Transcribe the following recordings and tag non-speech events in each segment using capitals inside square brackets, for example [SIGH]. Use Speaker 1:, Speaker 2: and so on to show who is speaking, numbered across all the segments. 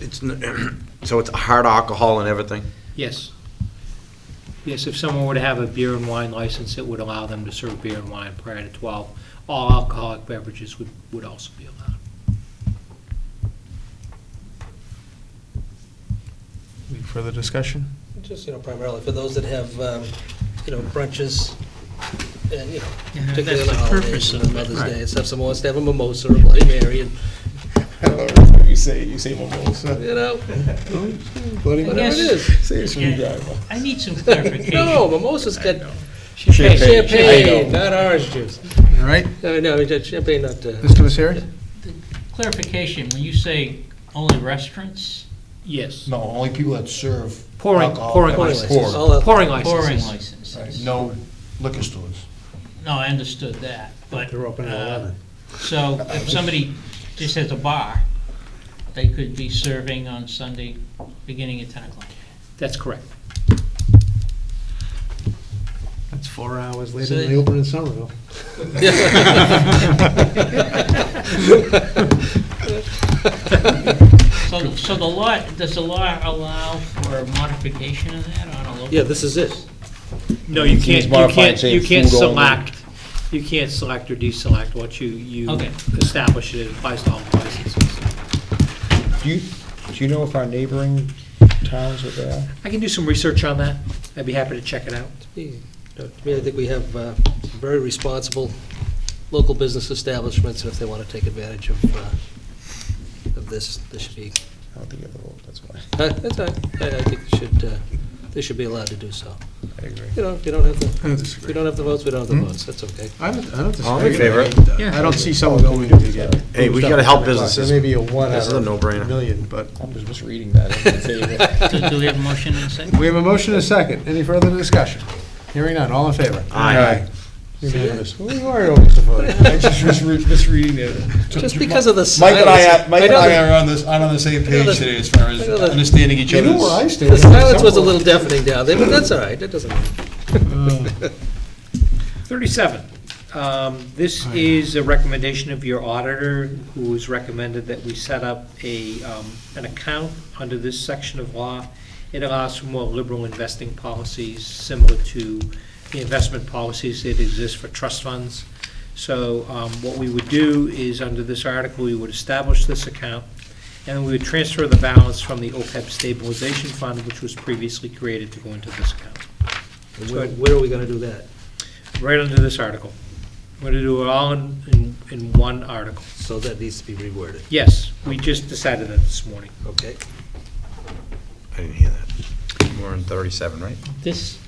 Speaker 1: it's, n- [CLEARS THROAT] so it's hard alcohol and everything?
Speaker 2: Yes. Yes, if someone were to have a beer and wine license, it would allow them to serve beer and wine prior to 12. All alcoholic beverages would, would also be allowed.
Speaker 3: Any further discussion?
Speaker 4: Just, you know, primarily for those that have, um, you know, brunches, and, you know,
Speaker 5: Yeah,
Speaker 4: particularly on
Speaker 5: that's
Speaker 4: the
Speaker 5: the purpose
Speaker 4: holidays and
Speaker 5: of
Speaker 4: the
Speaker 5: it.
Speaker 4: Mother's
Speaker 3: Right.
Speaker 4: Day, and stuff, someone wants to have a mimosa or a Bloody Mary, and,
Speaker 6: [LAUGHS]
Speaker 3: You say, you say mimosa.
Speaker 4: you know,
Speaker 3: Bloody
Speaker 4: whatever it
Speaker 5: guess-
Speaker 4: is.
Speaker 3: Say a
Speaker 5: screwdriver. I need some clarification.
Speaker 4: No, mimosa's got
Speaker 3: Champagne.
Speaker 4: champagne, not orange juice.
Speaker 3: All right,
Speaker 4: No, no, we got champagne, not, uh,
Speaker 3: Mr. Misery?
Speaker 5: Clarification, when you say only restaurants,
Speaker 2: Yes.
Speaker 7: No, only people that serve.
Speaker 2: Pouring,
Speaker 7: alcohol
Speaker 2: pouring
Speaker 4: pouring
Speaker 7: beverages.
Speaker 2: license.
Speaker 4: license, all that-
Speaker 2: Pouring
Speaker 5: pouring
Speaker 2: licenses.
Speaker 7: Right,
Speaker 5: licenses.
Speaker 7: No liquor stores.
Speaker 5: No, I understood that, but.
Speaker 4: They're open at
Speaker 5: uh,
Speaker 4: 11.
Speaker 5: So if somebody just has a bar, they could be serving on Sunday, beginning at 10 o'clock.
Speaker 2: That's correct.
Speaker 8: That's four hours later
Speaker 5: So-
Speaker 8: than they open in Somerville.
Speaker 5: So, so the law, does the law allow for a modification of that on a local?
Speaker 4: [LAUGHS] yeah, this is it.
Speaker 2: No, you
Speaker 1: He's
Speaker 2: can't, you
Speaker 1: modified,
Speaker 2: can't,
Speaker 1: saying
Speaker 2: you can't
Speaker 1: food only.
Speaker 2: select, you can't select or deselect what you, you
Speaker 5: Okay.
Speaker 2: establish it applies to all licenses.
Speaker 6: Do you, do you know if our neighboring towns are there?
Speaker 2: I can do some research on that. I'd be happy to check it out.
Speaker 4: Yeah, no, To me, I think we have uh, very responsible local business establishments, and if they want to take advantage of, uh, of this, this should be,
Speaker 6: I don't think I have the vote, that's why.
Speaker 4: uh, that's all right. I I think they should, uh, they should be allowed to do so.
Speaker 6: I agree.
Speaker 4: You know, if you don't have the,
Speaker 3: I don't
Speaker 4: if we
Speaker 3: disagree.
Speaker 4: don't have the votes, we don't have
Speaker 7: Hmm?
Speaker 4: the votes, that's okay.
Speaker 3: I don't, I don't disagree.
Speaker 1: All in favor?
Speaker 3: I don't see someone going to get.
Speaker 1: Hey, we gotta help businesses.
Speaker 3: There may be a one
Speaker 1: This
Speaker 3: out
Speaker 1: is a
Speaker 3: of
Speaker 1: no-brainer.
Speaker 3: a million, but
Speaker 6: I'm just misreading that. [LAUGHS] I'm in favor.
Speaker 5: Do do we have a motion and a second?
Speaker 3: we have a motion and a second. Any further discussion? Hearing none, all in favor?
Speaker 1: Aye.
Speaker 3: Unanimous. Well, you are always the
Speaker 4: [LAUGHS]
Speaker 3: vote. I just misre- misreading it.
Speaker 4: Just because of the
Speaker 7: Mike
Speaker 4: silence.
Speaker 7: and I, are- Mike and
Speaker 4: know
Speaker 7: I
Speaker 4: the-
Speaker 7: are on this, on the same
Speaker 4: know
Speaker 7: page
Speaker 4: the-
Speaker 7: today as far as
Speaker 4: I know the-
Speaker 7: understanding each
Speaker 3: You
Speaker 7: other's.
Speaker 3: know where I stand.
Speaker 4: The silence was a little deafening down there, but that's all right, that doesn't matter.
Speaker 2: 37, um, this is a recommendation of your auditor, who has recommended that we set up a, um, an account under this section of law. It allows for more liberal investing policies, similar to the investment policies that exist for trust funds. So um, what we would do is, under this article, we would establish this account, and we would transfer the balance from the OPEB stabilization fund, which was previously created to go into this account
Speaker 4: And Where where are we going to do that?
Speaker 2: right under this article. We're gonna do it all in, in, in one article.
Speaker 4: So that needs to be reworded,
Speaker 2: Yes, we just decided that this morning.
Speaker 4: okay?
Speaker 1: I didn't hear that. We're on 37, right?
Speaker 5: This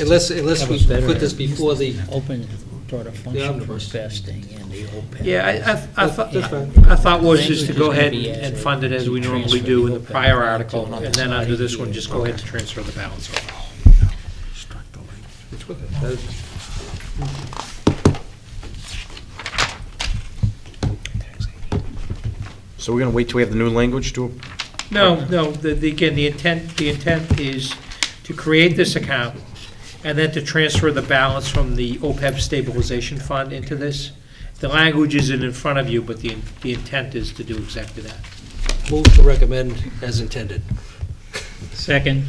Speaker 4: Unless, unless we put this before the,
Speaker 5: open sort of
Speaker 4: The
Speaker 5: function for
Speaker 4: omnibus.
Speaker 5: investing in the OPEB.
Speaker 2: Yeah, I, I, I thought,
Speaker 4: that's fine.
Speaker 2: I thought was just to go ahead
Speaker 5: Language is gonna be
Speaker 2: and
Speaker 5: as
Speaker 2: fund it as we
Speaker 5: to
Speaker 2: normally
Speaker 5: transfer
Speaker 2: do in
Speaker 5: the
Speaker 2: the prior
Speaker 5: open
Speaker 2: article,
Speaker 5: to
Speaker 2: and then under this one,
Speaker 5: another
Speaker 2: just go ahead and transfer the balance.
Speaker 4: uh,
Speaker 1: So we're gonna wait till we have the new language to,
Speaker 2: No, no, the, the- again, the intent, the intent is to create this account and then to transfer the balance from the OPEB stabilization fund into this. The language isn't in front of you, but the, the intent is to do exactly that.
Speaker 4: move to recommend as intended.
Speaker 5: Second.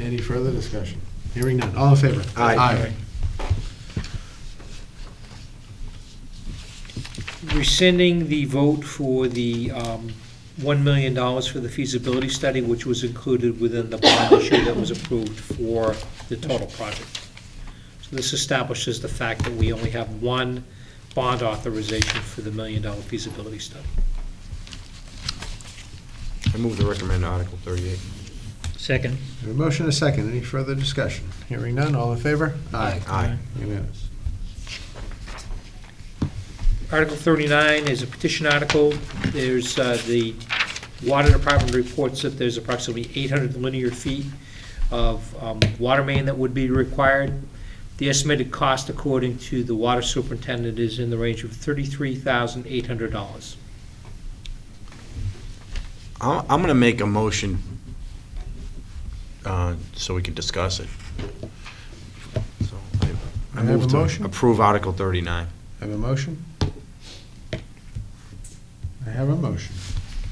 Speaker 3: Any further discussion? Hearing none, all in favor?
Speaker 1: Aye.
Speaker 2: rescinding the vote for the um, $1 million for the feasibility study, which was included within the bond issue that was approved for the total project. So this establishes the fact that we only have one bond authorization for the million-dollar feasibility study.
Speaker 1: I move to recommend Article 38.
Speaker 5: Second.
Speaker 3: We have A motion and a second. Any further discussion? Hearing none, all in favor? Aye.
Speaker 1: Aye.
Speaker 3: Unanimous.
Speaker 2: Article 39 is a petition article. There's, uh, the Water Department reports that there's approximately 800 linear feet of um, water main that would be required. The estimated cost, according to the water superintendent, is in the range of $33,800.
Speaker 1: I'm, I'm gonna make a motion, uh, so we can discuss it. So I- I
Speaker 3: I have a
Speaker 1: move to
Speaker 3: motion.
Speaker 1: approve Article 39.
Speaker 3: I have a motion? I have a motion.